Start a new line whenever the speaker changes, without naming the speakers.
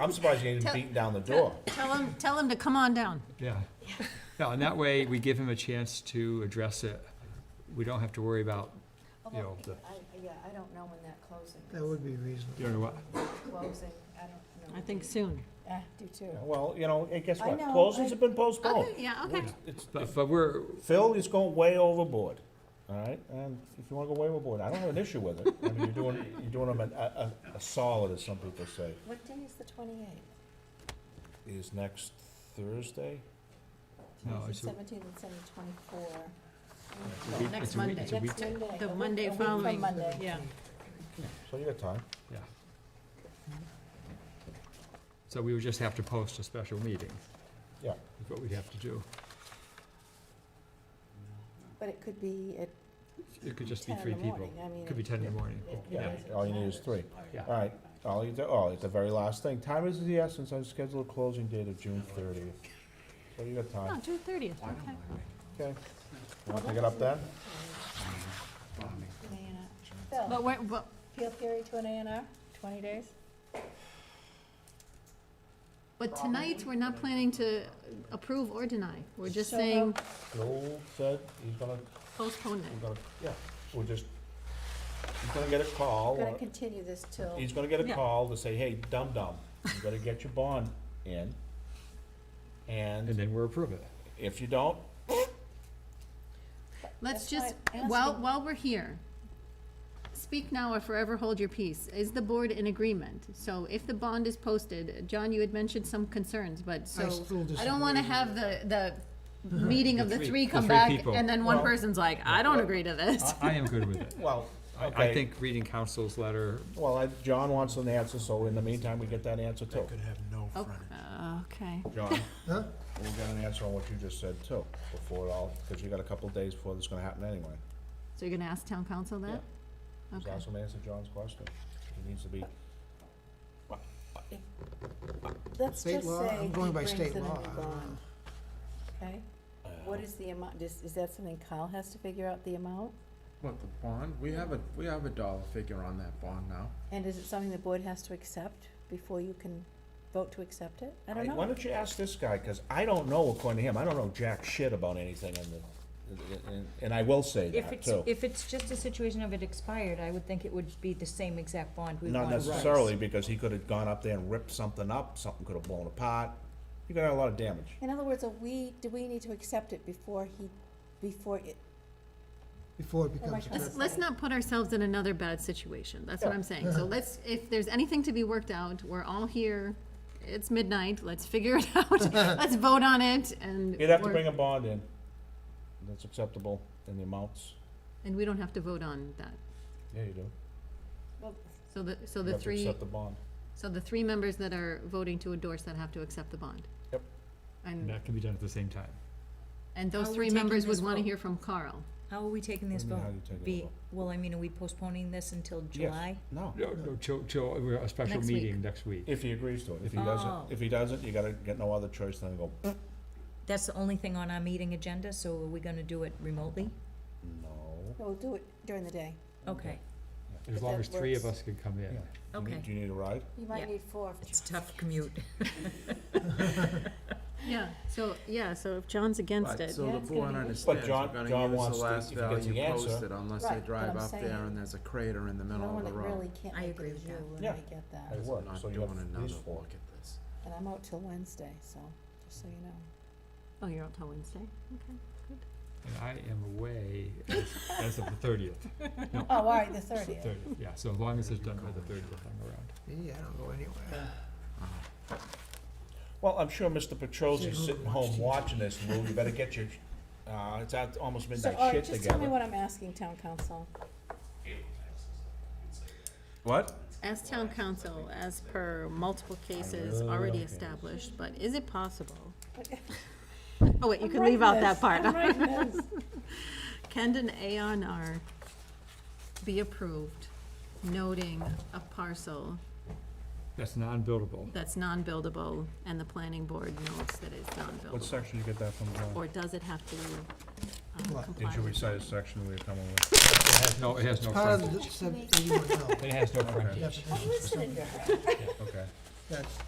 I'm surprised you didn't
Tell-
beat down the door.
Tell him, tell him to come on down.
Yeah, yeah, and that way, we give him a chance to address it. We don't have to worry about, you know, the,
I, yeah, I don't know when that closing is.
That would be reasonable.
you know what,
Closing, I don't know.
I think soon.
I do too.
Well, you know, and guess
I
what?
know,
Closings
I-
have been postponed.
Okay, yeah, okay.
It's- it's-
but, but we're,
Phil is going way overboard, all right? And if you wanna go way overboard, I don't have an issue with it. I mean, you're doing, you're doing them a, a, a solid, as some people say.
What day is the twenty-eighth?
Is next Thursday?
no, it's, a-
Seventeen and seventeen, twenty-four.
it's a week-
Next
it's a week-
Monday.
it's a week-
Next Monday.
The
a week-
Monday
a week from
following.
Monday.
Yeah.
So you got time.
yeah. So we would just have to post a special meeting.
Yeah.
Is what we'd have to do.
But it could be at
It could just be
ten
three
in the
people.
morning, I mean.
Could be
it-
ten in the morning.
it-
Yeah,
it-
all you need is three.
Yeah.
All right, all you do, oh, it's the very last thing. Time is of the essence. I've scheduled a closing date of June thirtieth. So you got
No,
time,
June thirtieth, okay.
okay? Wanna pick it up then?
an A&R.
But
Phil,
where, but,
appeal theory to an A and R, twenty days?
but tonight, we're not planning to approve or deny. We're just
So-
saying
Joel said he's gonna,
postpone
we're
it.
gonna, yeah, we're just, he's gonna get a call.
Oh,
We're gonna
uh,
continue this till,
He's gonna get a
Yeah.
call to say, hey, dum-dum, you better get your bond in.
And
And
then we're approved.
if you don't,
Let's
That's
just,
why I'm
while,
asking.
while we're here, speak now or forever hold your peace. Is the board in agreement? So if the bond is posted, John, you had mentioned some concerns, but so.
I still
I don't wanna
disagree.
have the, the meeting of the
three-
three
the
come
three
back,
people.
and then one
Well-
person's like, I don't
Well-
agree to this.
I, I am good with it.
well,
I,
okay.
I think reading council's letter,
Well, I, John wants an answer, so in the meantime, we get that answer too.
Could have no
uh,
Oh,
frontage.
Okay.
John,
Huh?
we'll get an answer on what you just said too, before it all, because you got a couple of days before this is gonna happen anyway.
So you're gonna ask town council that?
Just
Okay.
ask him to answer John's question. He needs to be,
let's
State
just
law?
say
I'm
he
going by
brings in a
state
new
law.
bond. Okay?
Uh,
What is the amount, is, is that something Kyle has to figure out the amount?
What, the bond? We have a, we have a dollar figure on that bond now.
And is it something the board has to accept before you can vote to accept it? I don't
Hey, why
know.
don't you ask this guy, because I don't know, according to him, I don't know jack shit about anything in the, and, and I will say
If
that
it's,
too.
if it's just a situation of it expired, I would think it would be the same exact bond we
Not
want.
necessarily, because he could have gone up there and ripped something up, something could have blown apart. You could have had a lot of damage.
In other words, are we, do we need to accept it before he, before it,
Before it
Oh my
becomes a
God.
Let's,
threat.
let's not put ourselves in another bad situation, that's what I'm saying. So let's, if there's anything to be worked out, we're all here, it's midnight, let's figure it out. Let's vote on it, and.
You'd have to
we're-
bring a bond in, that's acceptable in the amounts.
And we don't have to vote on that.
Yeah, you do.
well,
So the, so
You
the
have to
three,
accept the bond.
so the three members that are voting to endorse that have to accept the bond.
Yep.
And,
that can be done at the same time.
and
How
those
are we
three
taking
members would
this
wanna
vote?
hear from Carl.
How are we taking
What
this
do you mean,
vote?
how you taking the
Be,
vote?
well, I mean, are we postponing this until
Yes.
July?
No,
No, no, till, till, we're a special
Next week.
meeting next week.
if he agrees to it. If he
Oh.
doesn't, if he doesn't, you gotta get no other choice than to go,
That's the only thing on our meeting agenda, so are we gonna do it remotely?
no.
we'll do it during the day.
Okay,
As
If
long
that
as three of
works.
us can come in.
Do you need-
Okay.
Do you need a ride?
You
Yeah.
might need four.
it's a tough commute.
Yeah, so, yeah, so if John's against
But,
it,
so
Yeah,
the
it's gonna
board
be-
understands, you're
John- John
gonna use
wants
the
to-
last
if he gets the
value
answer-
posted unless
Right,
they
but
drive
I'm
up there
saying-
and there's a crater in
The
the middle
one
of the
that really
road.
can't
I
make
agree
it
with
is you,
that.
and
Yeah.
I get that.
It
Because
works,
I'm not
so you
doing
have
another
these four.
look at this.
And I'm out till Wednesday, so, just so you know.
oh, you're out till Wednesday, okay.
And I am away as, as of the thirtieth,
Oh, all right, the thirtieth.
thirtieth, yeah, so as long as it's done by the thirtieth, I'm around.
Me, I don't go anywhere.
Well, I'm sure Mr.
Sit
Petrosi's
home
sitting
and watch
home
TV.
watching this, Lou, you better get your, uh, it's out, almost
So,
midnight
all
shit
right, just tell me
together.
what I'm asking town council.
What?
As town council, as per multiple cases
really
already
don't care.
established, but is it possible? Oh, wait, you can leave out that part.
I'm writing this.
Can an A on R be approved noting a parcel
That's non-buildable.
that's non-buildable and the planning board notes that it's
What
non-buildable?
section you get that from, John?
Or does it have to um,
What?
comply?
Did you
with-
recite a section we were coming with?
It has no, it has no
Part
frontage.
of the seven eighty-one, no.
It has no
Okay.
frontage.
Definition.
I'm listening.
Okay.
That's